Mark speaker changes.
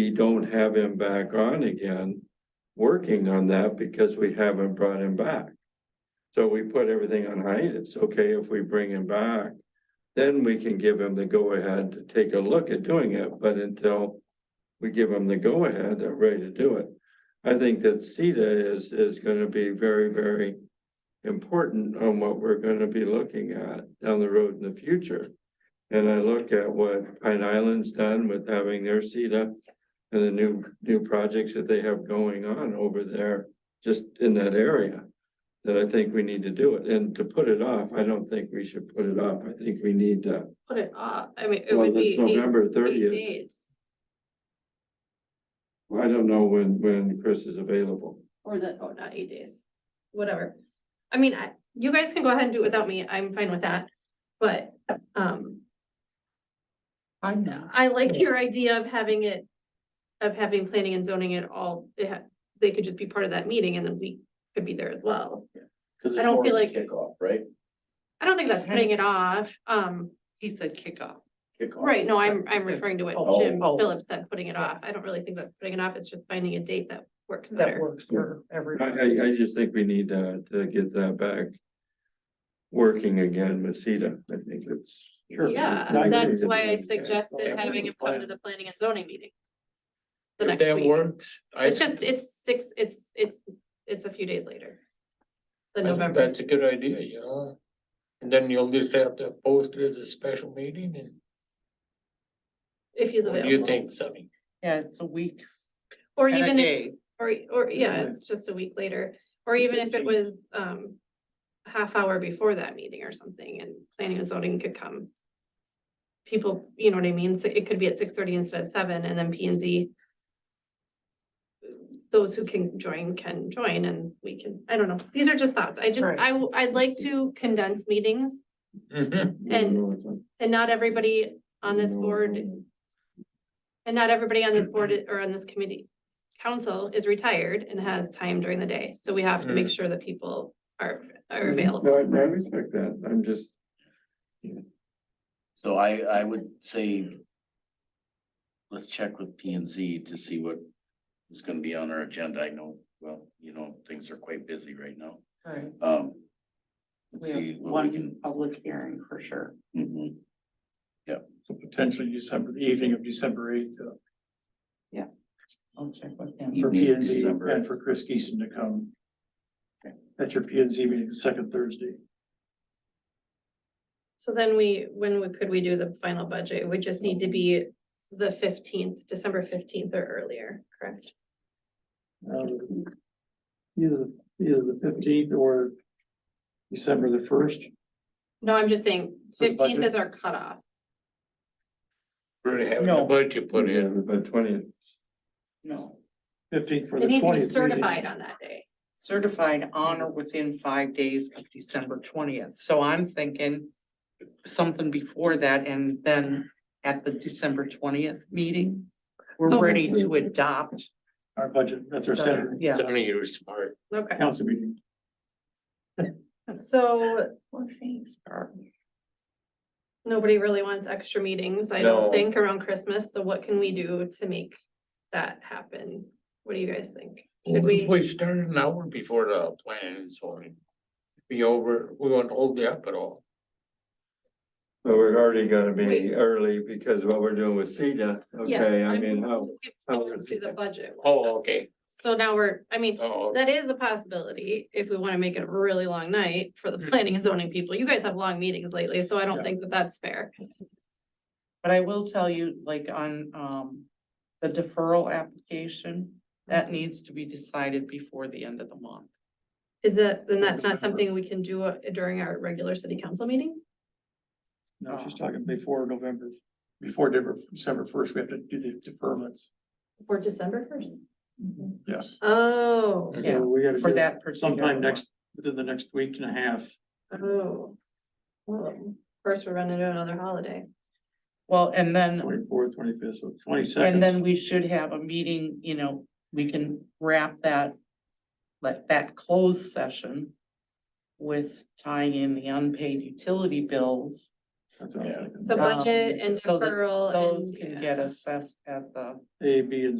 Speaker 1: we don't have him back on again, working on that because we haven't brought him back. So we put everything on hiatus. Okay, if we bring him back, then we can give him the go-ahead to take a look at doing it, but until we give him the go-ahead, they're ready to do it. I think that CETA is, is gonna be very, very important on what we're gonna be looking at down the road in the future. And I look at what Pine Island's done with having their CETA and the new, new projects that they have going on over there, just in that area. That I think we need to do it, and to put it off, I don't think we should put it off, I think we need to,
Speaker 2: put it off, I mean, it
Speaker 1: well,
Speaker 2: would
Speaker 1: this
Speaker 2: be eight,
Speaker 1: November
Speaker 2: eight
Speaker 1: thirtieth.
Speaker 2: days.
Speaker 1: I don't know when, when Chris is available.
Speaker 2: Or the, oh, not eight days, whatever. I mean, I, you guys can go ahead and do it without me, I'm fine with that, but, um,
Speaker 3: I'm not.
Speaker 2: I like your idea of having it. Of having planning and zoning it all, it ha- they could just be part of that meeting and then we could be there as well.
Speaker 4: Cause
Speaker 2: I
Speaker 4: it's
Speaker 2: don't
Speaker 4: more
Speaker 2: feel
Speaker 4: of a
Speaker 2: like-
Speaker 4: kickoff, right?
Speaker 2: I don't think that's putting it off, um,
Speaker 3: He said kickoff.
Speaker 4: Kickoff.
Speaker 2: right, no, I'm, I'm referring to what Jim
Speaker 4: Oh.
Speaker 2: Phillips said, putting it off, I don't really think that's putting it off, it's just finding a date that works
Speaker 3: That
Speaker 2: better.
Speaker 3: works for
Speaker 1: I,
Speaker 3: everybody.
Speaker 1: I, I just think we need to, to get that back. Working again with CETA, I think it's.
Speaker 2: Yeah, that's why I suggested having him come to the planning and zoning meeting. The
Speaker 4: If
Speaker 2: next
Speaker 4: that
Speaker 2: week,
Speaker 4: works. I-
Speaker 2: it's just, it's six, it's, it's, it's a few days later.
Speaker 4: I
Speaker 2: Than
Speaker 4: think
Speaker 2: November,
Speaker 4: That's a good idea, yeah. And then you'll just have to post it as a special meeting and
Speaker 2: if he's
Speaker 4: what do you
Speaker 2: available,
Speaker 4: think, Sunny?
Speaker 3: Yeah, it's a week
Speaker 2: or
Speaker 3: and a
Speaker 2: even if,
Speaker 3: day.
Speaker 2: or, or, yeah, it's just a week later, or even if it was, um. a Half hour before that meeting or something, and planning and zoning could come. People, you know what I mean, so it could be at six thirty instead of seven, and then P and Z. those who can join can join and we can, I don't know, these are just thoughts. I just,
Speaker 3: Right.
Speaker 2: I, w- I'd like to condense meetings
Speaker 4: Mhm.
Speaker 2: and- and not everybody on this
Speaker 1: Mm.
Speaker 2: board and not everybody on this board
Speaker 5: Mm-hmm.
Speaker 2: i- or on this committee council is retired and has time during the day. So we have to
Speaker 5: Mm.
Speaker 2: make sure that people are,
Speaker 5: Mm-hmm.
Speaker 2: are available.
Speaker 1: No, I I respect that, I'm just,
Speaker 6: So I, I would say. Let's check with P and Z to see what is gonna be on our agenda. I know, well, you know, things are quite busy right now.
Speaker 3: Right.
Speaker 6: Um.
Speaker 3: We
Speaker 6: Let's see
Speaker 3: have
Speaker 6: what
Speaker 3: one
Speaker 6: we can.
Speaker 3: public hearing for sure.
Speaker 6: mhm.
Speaker 5: So potentially December, the evening of December eighth, uh,
Speaker 3: I'll check with him.
Speaker 5: for
Speaker 6: Evening of
Speaker 5: P and Z
Speaker 6: December.
Speaker 5: and for Chris Geeson to come.
Speaker 6: Okay.
Speaker 5: At your P and Z meeting, the second Thursday.
Speaker 2: So then we, when we- could we do the final budget? We just need to be the fifteenth, December fifteenth or earlier, correct?
Speaker 5: um, Either, either the fifteenth or December the first.
Speaker 2: No, I'm just saying
Speaker 5: So the
Speaker 2: fifteenth
Speaker 5: budget-
Speaker 2: is our cutoff.
Speaker 4: We're having a
Speaker 3: No.
Speaker 4: budget put in.
Speaker 1: but twentieth,
Speaker 3: No,
Speaker 5: Fifteenth for
Speaker 2: It
Speaker 5: the
Speaker 2: needs to be
Speaker 5: twentieth.
Speaker 2: certified on that day.
Speaker 3: certified on or within five days of December twentieth. So I'm thinking something before that and then at the December twentieth meeting, we're
Speaker 2: Okay.
Speaker 3: ready to adopt.
Speaker 5: Our budget, that's our
Speaker 3: the-
Speaker 5: standard
Speaker 3: Yeah,
Speaker 4: Sunny, you're smart.
Speaker 2: Okay,
Speaker 5: council meeting.
Speaker 2: so
Speaker 3: well, thanks, Barb.
Speaker 2: nobody really wants extra meetings, I
Speaker 4: No.
Speaker 2: don't think, around Christmas, so what can we do to make that happen? What do you guys think? Should
Speaker 4: What if
Speaker 2: we,
Speaker 4: We started an hour before the plan and so on. Be over, we won't hold you up at all.
Speaker 1: but we're already gonna be
Speaker 2: Wait.
Speaker 1: early because what we're doing with CETA,
Speaker 2: Yeah,
Speaker 1: okay, I
Speaker 2: I'm-
Speaker 1: mean, how, how
Speaker 2: We'll
Speaker 1: is
Speaker 2: do the
Speaker 1: it?
Speaker 2: budget, one.
Speaker 4: Oh, okay,
Speaker 2: so now we're, I mean,
Speaker 4: oh,
Speaker 2: that is a possibility, if we wanna make it a really long night for the
Speaker 4: Mm.
Speaker 2: planning and zoning people, you guys have long meetings lately, so I don't
Speaker 5: Yeah.
Speaker 2: think that that's fair.
Speaker 3: But I will tell you, like on um the deferral application,
Speaker 5: Mm-hmm.
Speaker 3: that needs to be decided before the end of the month.
Speaker 2: Is that, then that's not
Speaker 5: November.
Speaker 2: something we can do uh, during our regular city council meeting?
Speaker 5: No,
Speaker 6: Oh.
Speaker 5: she's talking before November, before December, December first, we have to do the deferments.
Speaker 2: For December first?
Speaker 5: Yes.
Speaker 2: Oh,
Speaker 4: Mhm.
Speaker 3: Yeah,
Speaker 5: So we gotta
Speaker 3: For
Speaker 5: do it
Speaker 3: that particular.
Speaker 5: Mm-hmm. sometime
Speaker 3: one.
Speaker 5: next, within the next week and a half.
Speaker 2: oh. Well, First, we're running into another holiday.
Speaker 3: Well, and then
Speaker 5: Twenty-fourth, twenty-fifth, so twenty-second.
Speaker 3: And then we should have a meeting, you know, we can wrap that, let that closed session with tying in the unpaid utility bills
Speaker 5: That's all I'm
Speaker 6: Yeah.
Speaker 5: thinking.
Speaker 2: So budget and
Speaker 3: Um, so that
Speaker 2: deferral and.
Speaker 3: Those can
Speaker 2: yeah.
Speaker 3: get assessed at the.
Speaker 5: A, B, and